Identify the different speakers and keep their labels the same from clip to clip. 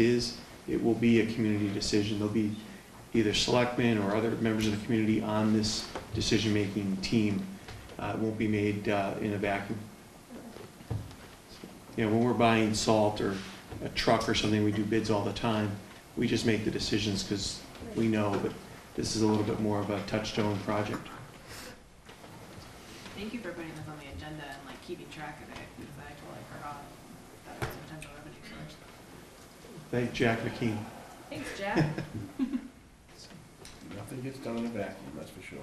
Speaker 1: is, it will be a community decision. There'll be either selectmen or other members of the community on this decision-making team. Uh, It won't be made uh, in a vacuum. You know, when we're buying salt or a truck or something, we do bids all the time. We just make the decisions because we know, but this is a little bit more of a touchstone project.
Speaker 2: Thank you for putting this on the agenda and like keeping track of it, because I totally forgot that it was a potential revenue source.
Speaker 1: Thank Jack McKean.
Speaker 2: Thanks, Jack.
Speaker 3: Nothing gets done in a vacuum, that's for sure.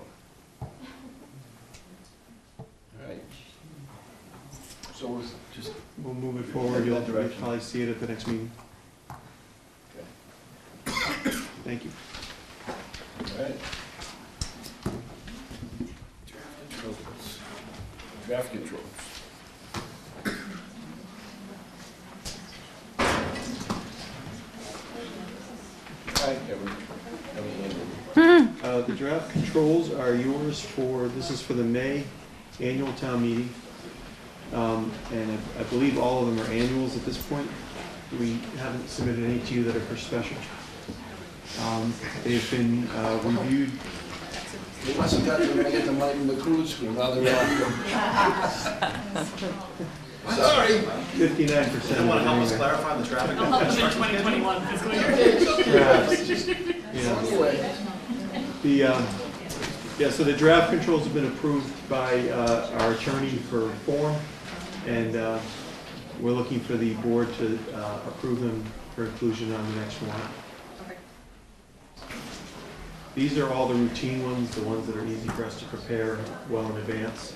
Speaker 3: All right. So we'll just,
Speaker 1: We'll move it forward. You'll
Speaker 3: That direction.
Speaker 1: probably see it at the next meeting. Thank you.
Speaker 3: all right. Draft controls. All right, Kevin. That was Andrew.
Speaker 1: Uh, The draft controls are yours for, this is for the May annual town meeting. Um, And I- I believe all of them are annuals at this point. We haven't submitted any to you that are for special. Um, They've been uh, reviewed,
Speaker 3: They must have got, they're gonna get the money from the cruise school, now they're not. Sorry.
Speaker 1: 59% of them.
Speaker 4: Anyone help us
Speaker 1: anyway.
Speaker 4: clarify the traffic?
Speaker 2: I'll help you in twenty twenty-one fiscal year.
Speaker 1: Yeah.
Speaker 3: Anyway.
Speaker 1: The, um, yeah, so the draft controls have been approved by uh, our attorney for form, and uh, we're looking for the board to uh, approve them for inclusion on the next one.
Speaker 2: Okay.
Speaker 1: These are all the routine ones, the ones that are easy for us to prepare well in advance.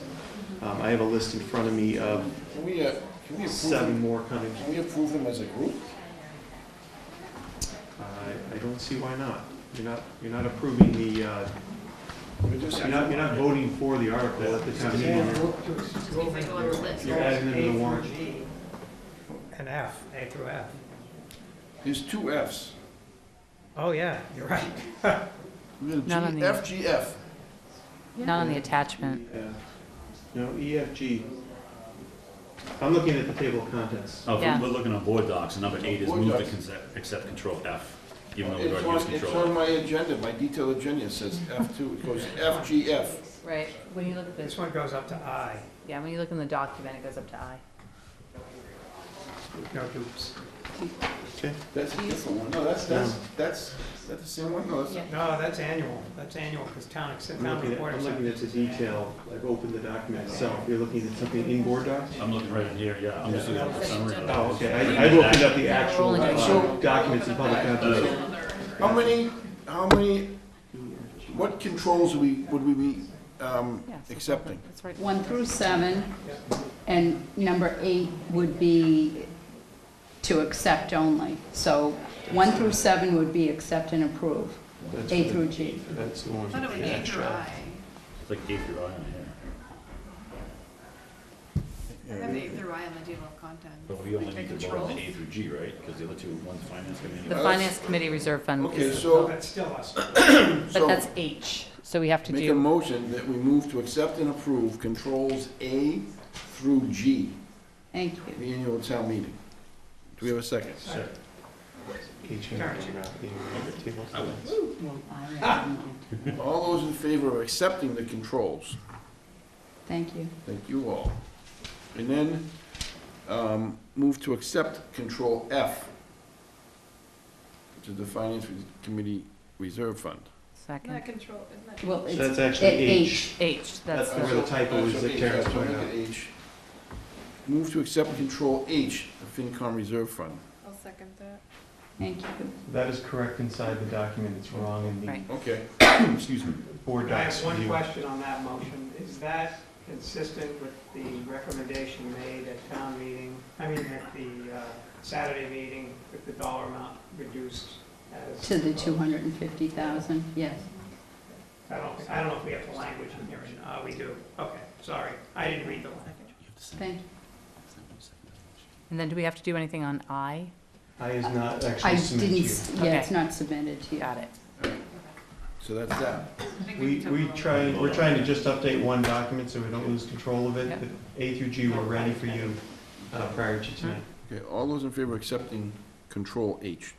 Speaker 1: Um, I have a list in front of me of
Speaker 3: Can we, uh, can we approve
Speaker 1: seven
Speaker 3: them,
Speaker 1: more coming.
Speaker 3: can we approve them as a group?
Speaker 1: I I don't see why not. You're not, you're not approving the, uh,
Speaker 3: We just
Speaker 1: you're not, you're not voting for the article at the town meeting.
Speaker 2: Means I go on the list.
Speaker 1: You're adding them to the warrant.
Speaker 5: An F, A through F.
Speaker 3: There's two Fs.
Speaker 5: Oh, yeah, you're right.
Speaker 6: Not on the-
Speaker 3: F, G, F.
Speaker 6: Not on the attachment.
Speaker 1: Yeah. No, EFG. I'm looking at the table of contents.
Speaker 7: Oh,
Speaker 6: Yeah.
Speaker 7: we're- we're looking on board docs, and number eight is
Speaker 3: Board
Speaker 7: move to
Speaker 3: docs.
Speaker 7: conce- accept control F, even though we've
Speaker 3: It's
Speaker 7: already used
Speaker 3: on, it's on
Speaker 7: control.
Speaker 3: my agenda, my detailed agenda, it says F two, it goes F, G, F.
Speaker 6: Right, when you look at
Speaker 5: This one goes up to I,
Speaker 6: yeah, when you look in the document, it goes up to I.
Speaker 5: no dupes.
Speaker 1: Okay.
Speaker 3: That's a different one, no, that's, that's, that's, is that the same one? No, that's,
Speaker 6: Yeah.
Speaker 5: No, that's annual, that's annual, because town, ex-
Speaker 1: I'm
Speaker 5: town
Speaker 1: looking at,
Speaker 5: report
Speaker 1: I'm
Speaker 5: is
Speaker 1: looking at the detail, like open the document itself. You're looking at something in board docs?
Speaker 7: I'm looking right in here, yeah, I'm just looking at the summary. of
Speaker 1: Oh,
Speaker 7: that.
Speaker 1: okay. I, I've opened up the actual
Speaker 6: only
Speaker 1: uh,
Speaker 3: doing So-
Speaker 1: documents in public contents.
Speaker 3: how many, how many, what controls would we, would we be, um,
Speaker 6: Yeah, so-
Speaker 3: accepting?
Speaker 6: That's right.
Speaker 8: One through seven, and number eight would be to accept only. So one through seven would be accept and approve,
Speaker 1: That's
Speaker 8: A
Speaker 1: the-
Speaker 8: through G.
Speaker 1: That's the
Speaker 2: I
Speaker 1: one.
Speaker 2: thought it was A through
Speaker 1: extra.
Speaker 2: I.
Speaker 7: It's like eight through I on here,
Speaker 2: I have A through I on the table of contents.
Speaker 7: but we only
Speaker 2: The
Speaker 7: need to vote on the
Speaker 2: controls?
Speaker 7: A through G, right? Because the other two, one's finance committee.
Speaker 6: The finance committee reserve fund
Speaker 3: Okay,
Speaker 6: is,
Speaker 5: No,
Speaker 3: so,
Speaker 5: that's still us.
Speaker 6: but
Speaker 3: so,
Speaker 6: that's H, so we have to
Speaker 3: make a
Speaker 6: do,
Speaker 3: motion that we move to accept and approve controls A through G.
Speaker 8: Thank you.
Speaker 3: the annual town meeting. Do we have a second?
Speaker 7: Sure.
Speaker 1: Each and every one of the table of contents.
Speaker 8: Well, I recommend.
Speaker 3: All those in favor of accepting the controls,
Speaker 8: Thank you.
Speaker 3: thank you all. And then, um, move to accept Control F, which is the Finance Committee Reserve Fund.
Speaker 2: Isn't that
Speaker 6: second,
Speaker 2: control, isn't that?
Speaker 8: Well,
Speaker 1: So
Speaker 8: it's
Speaker 1: that's
Speaker 8: at
Speaker 1: actually H.
Speaker 8: H.
Speaker 6: H, that's
Speaker 1: That's where
Speaker 6: the,
Speaker 1: the typo is that Karen's pointing out.
Speaker 3: H. Move to accept Control H, the FinCom Reserve Fund.
Speaker 2: I'll second that.
Speaker 8: Thank you.
Speaker 1: That is correct inside the document. It's wrong in
Speaker 6: Right.
Speaker 1: the
Speaker 3: Okay.
Speaker 7: Excuse me.
Speaker 1: board
Speaker 5: I
Speaker 1: docs.
Speaker 5: have one
Speaker 1: view.
Speaker 5: question on that motion. Is that consistent with the recommendation made at town meeting, I mean, at the uh, Saturday meeting, with the dollar amount reduced as?
Speaker 8: To the 250,000, yes.
Speaker 5: I don't, I don't know if we have the language in here, uh, we do, okay, sorry, I didn't read the language.
Speaker 8: Thank you.
Speaker 6: and then do we have to do anything on I?
Speaker 1: I is not
Speaker 8: I
Speaker 1: actually submitted
Speaker 8: didn't,
Speaker 1: to you.
Speaker 8: s- yeah, it's
Speaker 6: Okay.
Speaker 8: not submitted to you.
Speaker 6: Got it.
Speaker 3: So that's that.
Speaker 2: I think
Speaker 1: We,
Speaker 2: took a
Speaker 1: we
Speaker 2: little-
Speaker 1: try, we're trying to just update one document so we don't lose control of it.
Speaker 6: Yep.
Speaker 1: The A through G were ready for you uh, prior to tonight.
Speaker 3: Okay, all those in favor of accepting Control H.